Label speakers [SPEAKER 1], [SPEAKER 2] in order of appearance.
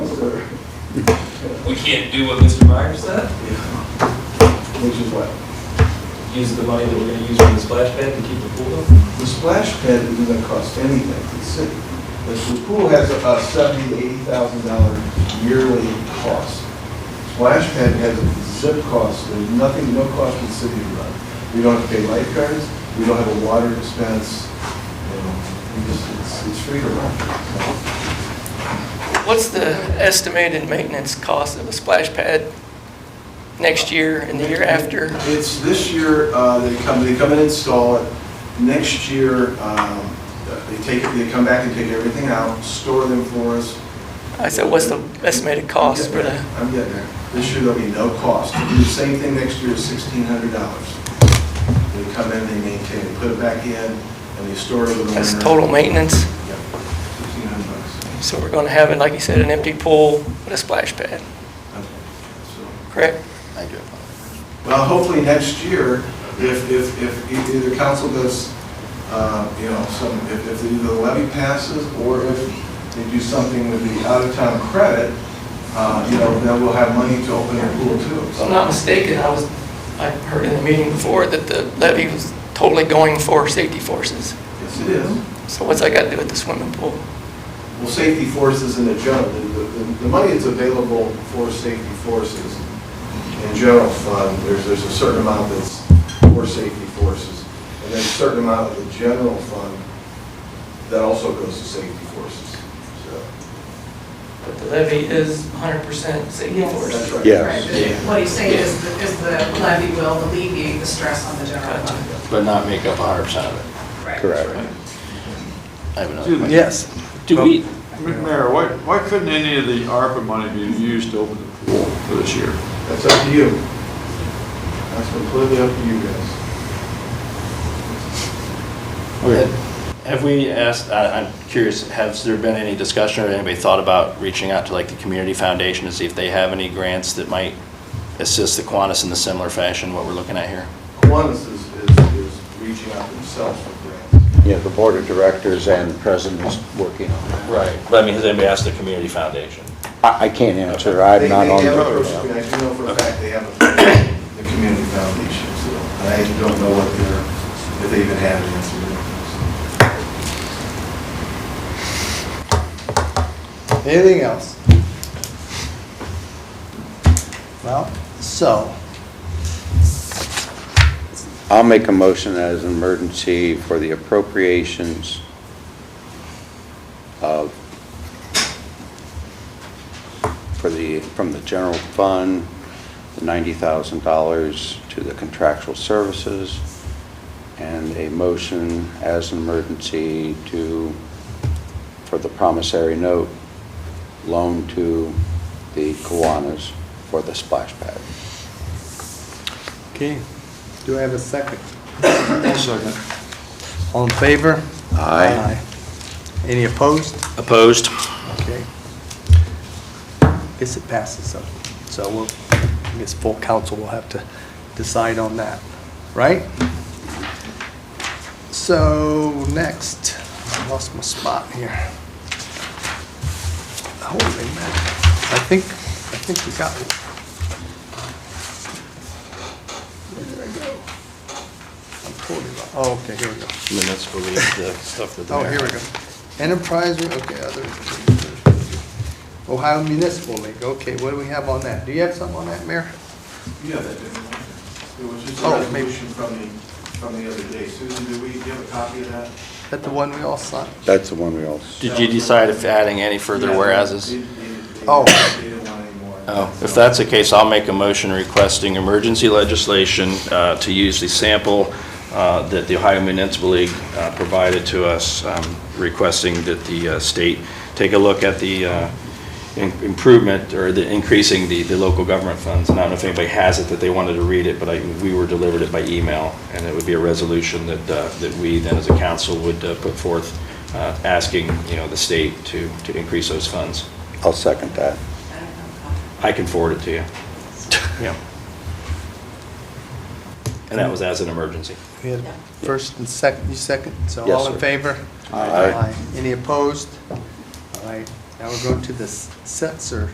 [SPEAKER 1] We can't do what Mr. Myers said,
[SPEAKER 2] Which is what?
[SPEAKER 1] use the money that we're gonna use for the splash pad to keep the pool up?
[SPEAKER 2] The splash pad isn't gonna cost anything to the city. The the pool has a seventy to eighty thousand dollar yearly cost. Splash pad has a zip cost, there's nothing, no cost to the city to run. We don't have to pay lifeguards, we don't have a water expense, you know, we just, it's, it's free to run.
[SPEAKER 3] What's the estimated maintenance cost of a splash pad next year and the year after?
[SPEAKER 2] It's this year, uh, they come, they come and install it. Next year, um, they take, it. they come back and take everything out, store them for us.
[SPEAKER 3] I said, what's the estimated cost for the,
[SPEAKER 2] I'm getting there. This year, there'll be no cost. We'll Do the same thing next year, sixteen hundred dollars. They come in, they maintain, they put it back in, and they store it with the winter.
[SPEAKER 3] that's total maintenance?
[SPEAKER 2] Yep, sixteen hundred bucks.
[SPEAKER 3] So we're going to have it, like you said, an empty pool with a splash pad,
[SPEAKER 2] Okay. So-
[SPEAKER 3] correct?
[SPEAKER 4] I do apologize.
[SPEAKER 2] Well, hopefully next year, if, if, if e- either council does, uh, you know, some, if, if either the levy passes or if they do something with the out-of-town credit, uh, you know, then we'll have money to open our pool too.
[SPEAKER 3] If I'm not mistaken, I was, I heard in the meeting before that the levy was totally going for safety forces.
[SPEAKER 2] Yes, it is.
[SPEAKER 3] So what's that got to do with the swimming pool?
[SPEAKER 2] Well, safety forces in the general, the, the, the money that's available for safety forces in general fund, there's, there's a certain amount that's for safety forces, and then a certain amount of the general fund that also goes to safety forces, so.
[SPEAKER 3] But the levy is 100% safety
[SPEAKER 5] Yes.
[SPEAKER 3] forces.
[SPEAKER 2] that's right.
[SPEAKER 4] Yes.
[SPEAKER 5] Right. What he's saying is, the- is the levy will alleviate the stress on the general
[SPEAKER 3] Gotcha.
[SPEAKER 5] fund.
[SPEAKER 4] But not make up hundred percent of it.
[SPEAKER 5] Right.
[SPEAKER 4] I have another
[SPEAKER 6] Excuse me.
[SPEAKER 4] question.
[SPEAKER 6] Yes.
[SPEAKER 7] Do we,
[SPEAKER 6] Mayor, why, why couldn't any of the ARPA money be used to open the pool for this year?
[SPEAKER 2] That's up to you. That's completely up to you guys.
[SPEAKER 4] Had- Have we asked, I- I'm curious, has there been any discussion or anybody thought about reaching out to like the community foundation to see if they have any grants that might assist the Kiwanis in the similar fashion, what we're looking at here?
[SPEAKER 2] Kiwanis is, is, is reaching out themselves for grants.
[SPEAKER 8] Yeah, the board of directors and president is working on that.
[SPEAKER 4] Right. But I mean, has anybody asked the community foundation?
[SPEAKER 8] I, I can't answer, I'm
[SPEAKER 2] They-
[SPEAKER 8] not on
[SPEAKER 2] They
[SPEAKER 8] the
[SPEAKER 2] have
[SPEAKER 8] board.
[SPEAKER 2] approached, me. I do know for a fact they have approached the community foundation, so I don't know what they're, if they even have an answer. to that.
[SPEAKER 6] Anything else? Well, so,
[SPEAKER 8] I'll make a motion as an emergency for the appropriations of, for the, from the general fund, the $90,000 to the contractual services, and a motion as an emergency to, for the promissory note loan to the Kiwanis for the splash pad.
[SPEAKER 9] Okay, do I have a second?
[SPEAKER 6] one second.
[SPEAKER 9] All in favor?
[SPEAKER 8] Aye.
[SPEAKER 9] Aye. Any opposed?
[SPEAKER 4] Opposed?
[SPEAKER 9] Okay. Guess it passes, so, so we'll, I guess full council will have to decide on that, right? So, next, I lost my spot here. Holy man, I think, I think we got it. Where did I go? I'm totally, lo- oh, okay, here we go.
[SPEAKER 4] Minutes for the stuff that
[SPEAKER 9] Oh, here we go. Enterprise, okay, other. Ohio Municipal League, okay, what do we have on that? Do you have something on that, Mayor?
[SPEAKER 2] You have that, didn't you? It was just a
[SPEAKER 9] Oh, maybe.
[SPEAKER 2] resolution from the, from the other day. Susan, did we, do you have a copy of that?
[SPEAKER 9] That the one we all signed?
[SPEAKER 8] That's the one we all
[SPEAKER 4] Did you decide if adding any further
[SPEAKER 2] Yeah,
[SPEAKER 4] whereases?
[SPEAKER 2] they- they- they-
[SPEAKER 9] Oh.
[SPEAKER 2] They didn't want any more.
[SPEAKER 4] Oh, if that's the case, I'll make a motion requesting emergency legislation uh, to use the sample uh, that the Ohio Municipal League uh, provided to us, um, requesting that the uh, state take a look at the uh, im- improvement or the increasing the, the local government funds. And I don't know if anybody has it, that they wanted to read it, but I, we were delivered it by email, and it would be a resolution that, uh, that we then as a council would uh, put forth, uh, asking, you know, the state to, to increase those funds.
[SPEAKER 8] I'll second that.
[SPEAKER 5] I don't know.
[SPEAKER 4] I can forward it to you. Yeah. And that was as an emergency.
[SPEAKER 9] We had first and second, you second, so
[SPEAKER 8] Yes,
[SPEAKER 9] all in
[SPEAKER 8] sir.
[SPEAKER 9] favor?
[SPEAKER 8] Aye.
[SPEAKER 9] Any opposed? All right, now we're going to the Setzer